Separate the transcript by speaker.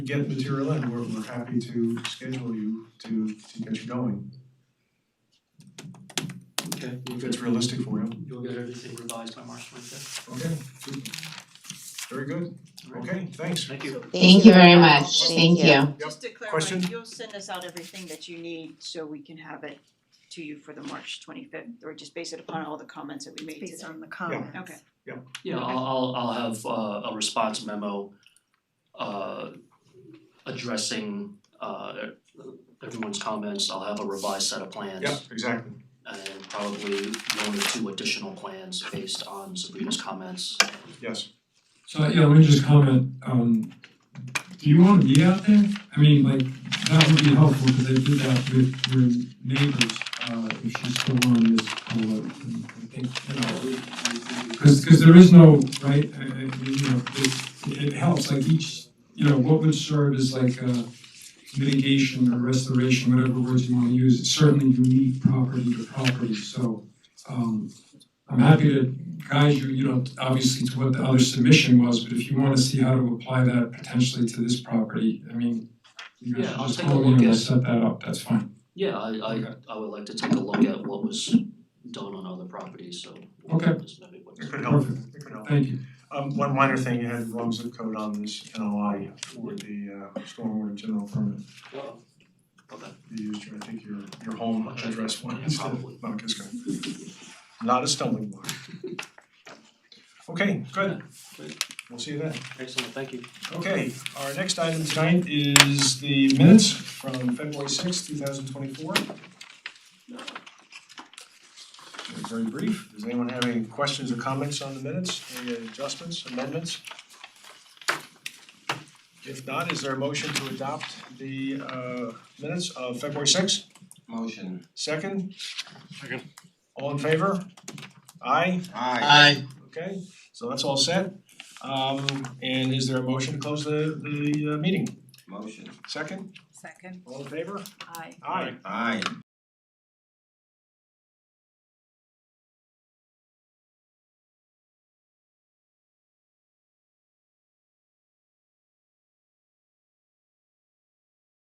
Speaker 1: get material in, we're we're happy to schedule you to to get you going,
Speaker 2: Okay, you'll
Speaker 1: if
Speaker 2: get,
Speaker 1: it's realistic for you.
Speaker 2: you'll get everything revised by March twenty fifth.
Speaker 1: Okay. Very good, okay, thanks.
Speaker 2: Thank you.
Speaker 3: Thank you very much,
Speaker 4: Just-
Speaker 3: thank you.
Speaker 4: Just to clarify,
Speaker 1: Question?
Speaker 4: you'll send us out everything that you need so we can have it to you for the March twenty fifth, or just base it upon all the comments that we made today?
Speaker 5: based on the comments.
Speaker 4: Okay.
Speaker 2: Yeah, I'll I'll I'll have uh a response memo uh addressing uh everyone's comments. I'll have a revised set of plans.
Speaker 1: Yep, exactly.
Speaker 2: And probably one or two additional plans based on Sabrina's comments.
Speaker 1: Yes,
Speaker 6: So, yeah, let me just comment, um, do you wanna be out there? I mean, like, that would be helpful, cause I did that with your neighbors, uh, if she's still on this board, and I think, you know. Cause, cause there is no, right, I, I, you know, it, it helps, like each, you know, what would serve as like a mitigation or restoration, whatever words you wanna use, it's certainly unique property to property, so, um, I'm happy to guide you, you know, obviously to what the other submission was, but if you wanna see how to apply that potentially to this property, I mean, you guys
Speaker 2: Yeah, I'll
Speaker 6: just
Speaker 2: take a
Speaker 6: call
Speaker 2: look
Speaker 6: me and
Speaker 2: at-
Speaker 6: we'll set that up, that's fine.
Speaker 2: Yeah, I I I would like to take a look at what was done on other properties, so. we'll
Speaker 6: Okay.
Speaker 2: just note it.
Speaker 1: it could help,
Speaker 6: Perfect.
Speaker 1: it could help.
Speaker 6: Thank you.
Speaker 1: Um, one minor thing, you had the wrong zip code on this NOI for the uh stormwater general permit.
Speaker 2: Well, Okay.
Speaker 1: You used your, I think your your home address one
Speaker 2: Yeah,
Speaker 1: instead
Speaker 2: probably.
Speaker 1: of Mount Kisco. Not a stumbling block. Okay, good.
Speaker 2: Great.
Speaker 1: We'll see you then.
Speaker 2: Excellent, thank you.
Speaker 1: Okay, our next item tonight is the minutes from February sixth, two thousand twenty-four. Very brief. Does anyone have any questions or comments on the minutes, any adjustments, amendments? If not, is there a motion to adopt the uh minutes of February sixth?
Speaker 7: Motion.
Speaker 1: Second? Second. All in favor? Aye?
Speaker 7: Aye.
Speaker 8: Aye.
Speaker 1: Okay, so that's all set. Um and is there a motion to close the the uh meeting?
Speaker 7: Motion.
Speaker 1: Second,
Speaker 5: Second,
Speaker 1: all in favor?
Speaker 5: aye.
Speaker 1: Aye.
Speaker 7: Aye.